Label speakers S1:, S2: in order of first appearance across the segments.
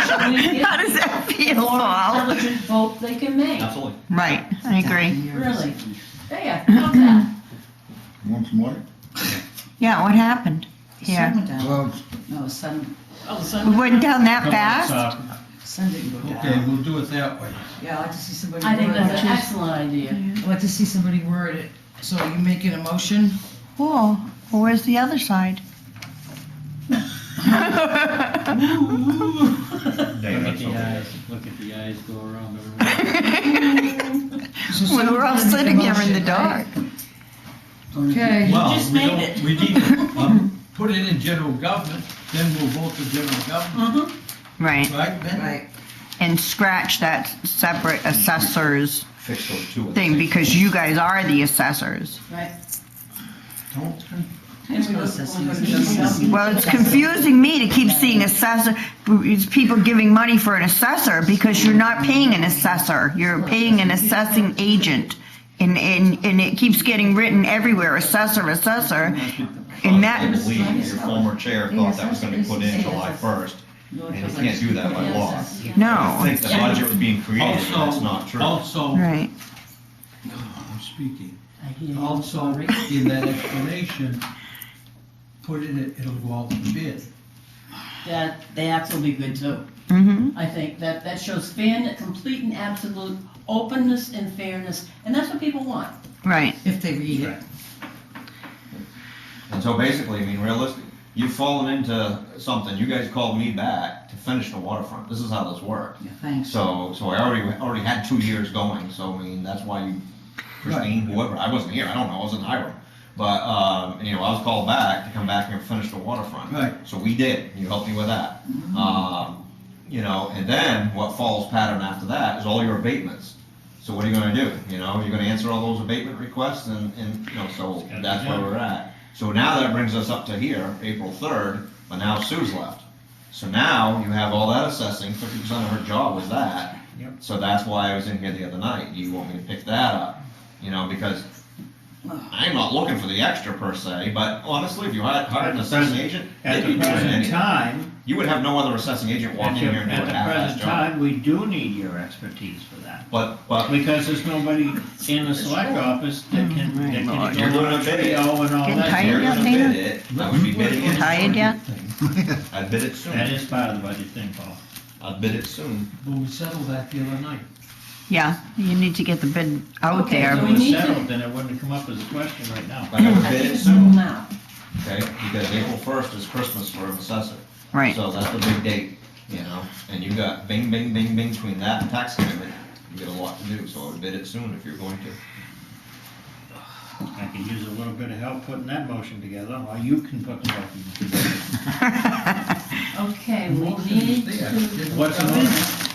S1: How
S2: How
S1: does that feel, Paul?
S2: Intelligent vote they can make,
S3: Absolutely.
S1: Right, I agree.
S2: really. Yeah, how's that?
S4: Once more?
S1: Yeah, what happened? Yeah.
S5: Sun went down.
S4: Well,
S5: No, sun,
S6: Oh, the
S1: We
S6: sun.
S1: went down that
S3: Come on,
S1: fast?
S3: so-
S5: sun didn't go
S4: okay,
S5: down.
S4: we'll do it that way.
S5: Yeah, I like to see somebody
S2: I think
S5: word
S2: that's an
S5: it.
S2: excellent idea.
S5: I like to see somebody word it. So you making a motion?
S1: Cool. Well, where's the other side?
S3: Look at
S7: that's
S3: the
S7: okay.
S3: eyes, look at the eyes go around
S5: So
S3: everywhere.
S1: We
S5: somebody's
S1: were all
S5: gonna make a
S1: sitting here in the
S5: motion, right?
S1: dark.
S5: Okay.
S4: Well,
S6: just
S4: we
S6: made
S4: don't-
S6: it.
S4: We need to um, put it in general government, then we'll vote for general government,
S1: Right,
S4: right, Ben?
S5: Right.
S1: and scratch that separate assessors
S3: Fix those two.
S1: thing because you guys are the assessors.
S2: Right.
S4: Don't-
S1: Well, it's confusing me to keep seeing assessor, it's people giving money for an assessor because you're not paying an assessor. You're paying an assessing agent. And, and, and it keeps getting written everywhere, assessor, assessor. And
S7: I
S1: that,
S7: believe your former chair thought that was gonna be put in July first, and you can't do that by law. I
S1: no,
S7: think the budget was being created, and that's not
S4: Also,
S7: true.
S4: also,
S1: right.
S4: I'm speaking,
S2: All
S4: also in that explanation, put in it, it'll go out for bid.
S2: That, that will be good too.
S1: Mm-hmm.
S2: I think that, that shows fan, complete and absolute openness and fairness, and that's what people want.
S1: Right.
S5: If they read it.
S7: And so basically, I mean, realistic, you've fallen into something, you guys called me back to finish the waterfront, this is how this worked.
S5: Yeah, Thanks.
S7: So, so I already, already had two years going, so I mean, that's why you, Christine, whoever, I wasn't here, I don't know, I was in Hiram. But, um, you know, I was called back to come back here and finish the waterfront.
S4: Right.
S7: So we did, you helped me with that.
S3: Mm-hmm.
S7: Um, you know, and then what falls pattern after that is all your abatements. So what are you gonna do, you know, you're gonna answer all those abatement requests and, and, you know, so
S3: gotta be
S7: that's where
S3: done.
S7: we're at. So now that brings us up to here, April third, but now Sue's left. So now you have all that assessing, fifty percent of her job was that.
S4: Yep.
S7: So that's why I was in here the other night, do you want me to pick that up? You know, because I'm not looking for the extra per se, but honestly, if you hired, hired an assessing agent,
S3: At
S7: they'd be
S3: the
S7: doing
S3: present
S7: anything.
S3: time,
S7: You would have no other assessing agent
S3: at
S7: walking
S3: the,
S7: in here and doing
S3: at
S7: a
S3: the
S7: half-assed
S3: present
S7: job.
S3: time, we do need your expertise for that.
S7: But, but,
S3: Because there's nobody in the select office that
S2: Mm-hmm.
S3: can, that
S1: Lord.
S3: can go on a video and all
S1: Getting
S3: that.
S7: if
S1: tired yet, Dana?
S7: you're gonna bid it, I would be bidding it.
S1: Tired yet?
S7: I'd bid it soon,
S3: That is part of the budget thing, Paul.
S7: I'd bid it soon.
S4: But we settled that the other night.
S1: Yeah, you need to get the bid out
S2: Okay,
S1: there.
S2: so
S3: If
S2: we
S3: it was
S2: need to-
S3: settled, then it wouldn't have come up as a question right now.
S7: But I would
S2: I
S7: bid
S2: think
S7: it
S2: so
S7: soon,
S2: now.
S7: okay, because April first is Christmas for an assessor.
S1: Right.
S7: So that's the big date, you know, and you got bing, bing, bing, bing between that and tax commitment, you got a lot to do, so I would bid it soon if you're going to.
S3: I could use a little bit of help putting that motion together, or you can put the motion together.
S2: Okay, we need
S4: There,
S2: to,
S4: didn't-
S3: What's the motion?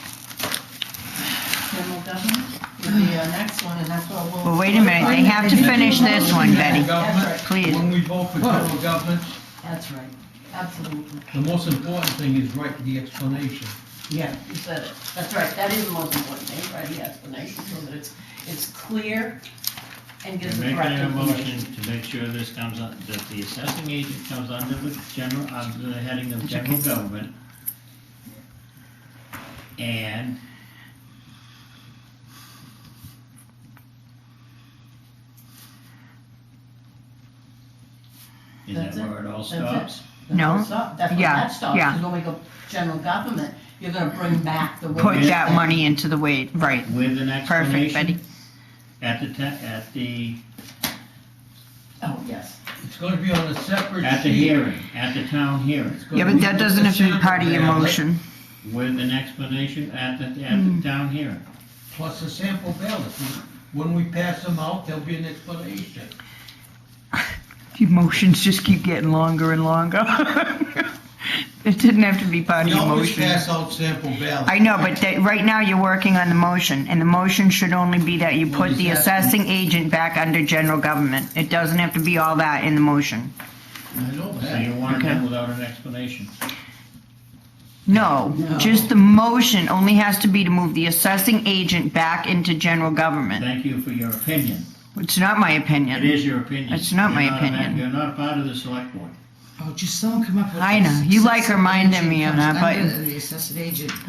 S2: general government would be our next one, and that's what we'll.
S1: Well, wait a minute, they have to finish this one, Betty.
S4: General government,
S1: Please.
S4: When we vote for general government,
S2: That's right, absolutely.
S4: the most important thing is write the explanation.
S2: Yeah, you said it. That's right, that is the most important thing, right, the explanation, so that it's, it's clear and gives the
S3: We're
S2: correct
S3: making a motion
S2: information.
S3: to make sure this comes, un- that the assessing agent comes under the general, under the heading of general government. And is that
S2: That's it.
S3: where it all
S2: That's it.
S3: stops?
S2: That's
S1: No.
S2: where it stop- That's where
S1: Yeah,
S2: that stops,
S1: yeah.
S2: because when we go general government, you're gonna bring back the.
S1: Put
S2: wage
S1: that
S2: thing.
S1: money into the wait, right.
S3: With an
S1: Perfect, Betty.
S3: explanation at the, ta- at the,
S2: Oh, yes.
S4: It's gonna be on a separate sheet.
S3: at the hearing, at the town hearing,
S4: It's gonna
S1: Yeah, but
S4: be
S1: that doesn't have to be part of your
S4: sample ballot
S1: motion.
S3: with an explanation at the, at
S2: Hmm.
S3: the town hearing.
S4: Plus a sample ballot. When we pass them out, there'll be an explanation.
S1: Your motions just keep getting longer and longer. It didn't have to be part
S4: We
S1: of your
S4: always
S1: motion.
S4: pass out sample ballots.
S1: I know, but that, right now you're working on the motion, and the motion should only be that you
S4: What
S1: put
S4: is
S1: the
S4: that?
S1: assessing agent back under general government. It doesn't have to be all that in the motion.
S4: I know
S3: So
S4: that.
S3: you want
S1: Okay.
S3: that without an explanation.
S1: No, just the motion only has to be to move the assessing agent back into general government.
S3: Thank you for your opinion.
S1: It's not my
S3: It
S1: opinion.
S3: is your opinion.
S1: It's not my
S3: You're a ma-
S1: opinion.
S3: You're not a part of the select board.
S5: Oh, just someone come up with.
S1: I know.
S5: this.
S1: You like
S5: Assessing
S1: reminding me
S5: agent
S1: of
S5: comes
S1: that, but-
S5: under The assessing agent.